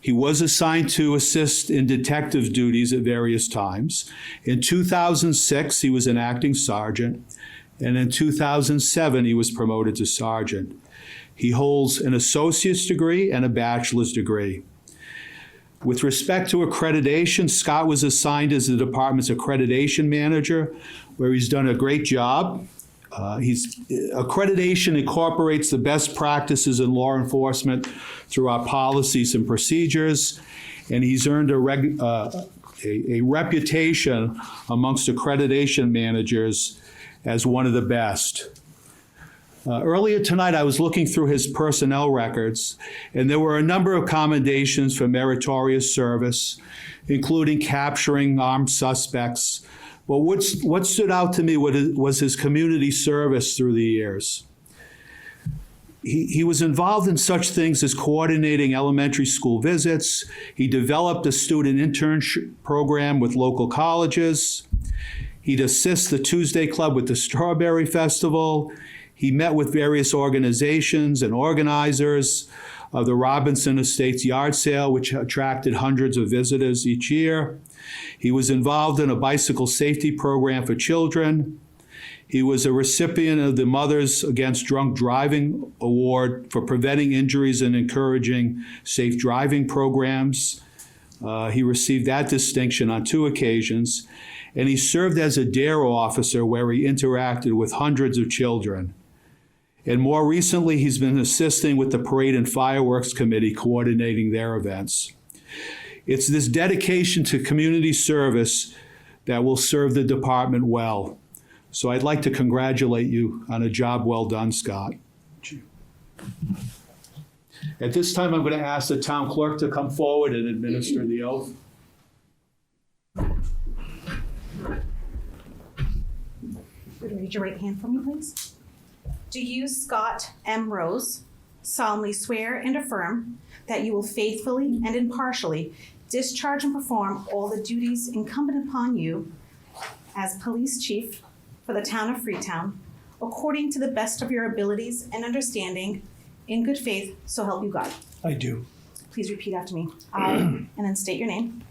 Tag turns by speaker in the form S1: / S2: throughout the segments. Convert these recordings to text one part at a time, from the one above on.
S1: He was assigned to assist in detective duties at various times. In 2006, he was an acting sergeant, and in 2007, he was promoted to sergeant. He holds an associate's degree and a bachelor's degree. With respect to accreditation, Scott was assigned as the department's accreditation manager, where he's done a great job. Uh, he's accreditation incorporates the best practices in law enforcement through our policies and procedures, and he's earned a, reg, uh, a, a reputation amongst accreditation managers as one of the best. Uh, earlier tonight, I was looking through his personnel records, and there were a number of commendations for meritorious service, including capturing armed suspects. But what's, what stood out to me was was his community service through the years. He, he was involved in such things as coordinating elementary school visits. He developed a student internship program with local colleges. He'd assist the Tuesday Club with the Strawberry Festival. He met with various organizations and organizers of the Robinson Estates yard sale, which attracted hundreds of visitors each year. He was involved in a bicycle safety program for children. He was a recipient of the Mothers Against Drunk Driving Award for preventing injuries and encouraging safe driving programs. Uh, he received that distinction on two occasions, and he served as a DARE officer where he interacted with hundreds of children. And more recently, he's been assisting with the Parade and Fireworks Committee coordinating their events. It's this dedication to community service that will serve the department well. So I'd like to congratulate you on a job well done, Scott. At this time, I'm going to ask the town clerk to come forward and administer the oath.
S2: Would you raise your right hand for me, please? Do you, Scott M. Rose, solemnly swear and affirm that you will faithfully and impartially discharge and perform all the duties incumbent upon you as police chief for the town of Freetown, according to the best of your abilities and understanding, in good faith, so help you God?
S3: I do.
S2: Please repeat after me. I, and then state your name,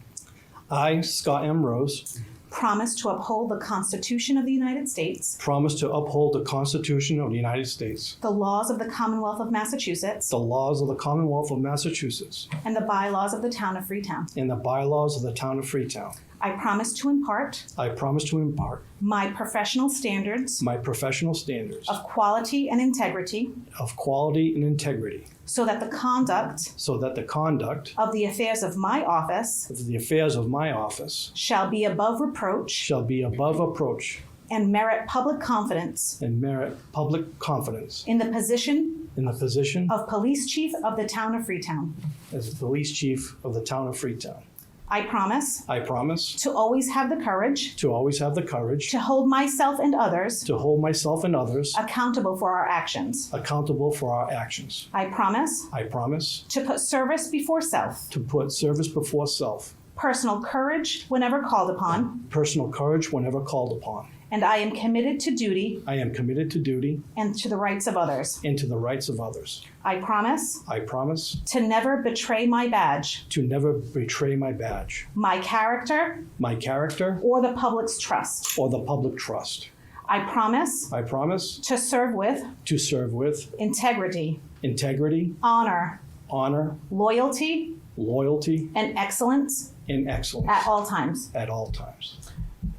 S3: I, Scott M. Rose,
S2: promise to uphold the Constitution of the United States,
S3: promise to uphold the Constitution of the United States,
S2: the laws of the Commonwealth of Massachusetts,
S3: the laws of the Commonwealth of Massachusetts,
S2: and the bylaws of the town of Freetown.
S3: and the bylaws of the town of Freetown.
S2: I promise to impart
S3: I promise to impart
S2: my professional standards
S3: my professional standards
S2: of quality and integrity
S3: of quality and integrity
S2: so that the conduct
S3: so that the conduct
S2: of the affairs of my office
S3: of the affairs of my office
S2: shall be above reproach
S3: shall be above approach
S2: and merit public confidence
S3: and merit public confidence
S2: in the position
S3: in the position
S2: of police chief of the town of Freetown.
S3: as police chief of the town of Freetown.
S2: I promise
S3: I promise
S2: to always have the courage
S3: to always have the courage
S2: to hold myself and others
S3: to hold myself and others
S2: accountable for our actions.
S3: accountable for our actions.
S2: I promise
S3: I promise
S2: to put service before self,
S3: to put service before self,
S2: personal courage whenever called upon,
S3: personal courage whenever called upon.
S2: and I am committed to duty
S3: I am committed to duty
S2: and to the rights of others.
S3: and to the rights of others.
S2: I promise
S3: I promise
S2: to never betray my badge,
S3: to never betray my badge,
S2: my character,
S3: my character,
S2: or the public's trust.
S3: or the public trust.
S2: I promise
S3: I promise
S2: to serve with
S3: to serve with
S2: integrity,
S3: integrity,
S2: honor,
S3: honor,
S2: loyalty,
S3: loyalty,
S2: and excellence
S3: and excellence
S2: at all times.
S3: at all times.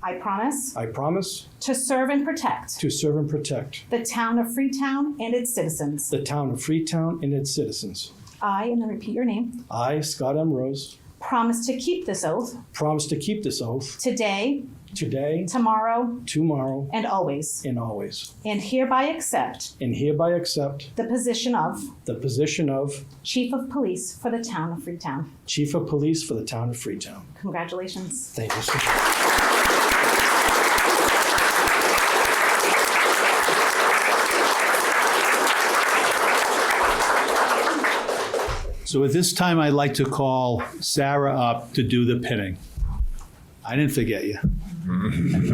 S2: I promise
S3: I promise
S2: to serve and protect
S3: to serve and protect
S2: the town of Freetown and its citizens.
S3: the town of Freetown and its citizens.
S2: I, and then repeat your name,
S3: I, Scott M. Rose,
S2: promise to keep this oath
S3: promise to keep this oath
S2: today,
S3: today,
S2: tomorrow,
S3: tomorrow,
S2: and always,
S3: and always,
S2: and hereby accept
S3: and hereby accept
S2: the position of
S3: the position of
S2: Chief of Police for the town of Freetown.
S3: Chief of Police for the Town of Freetown.
S2: Congratulations.
S3: Thank you so much.
S1: So at this time, I'd like to call Sarah up to do the pinning. I didn't forget you.